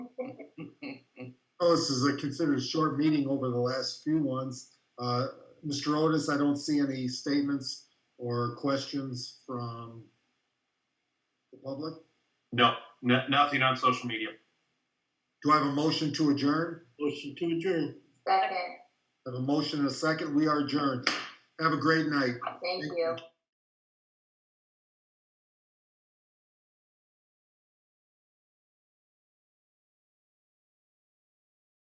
know this is a considered short meeting over the last few ones. Uh, Mr. Otis, I don't see any statements or questions from the public. No, no, nothing on social media. Do I have a motion to adjourn? Motion to adjourn. Second, I have a motion and a second. We are adjourned. Have a great night. thank you.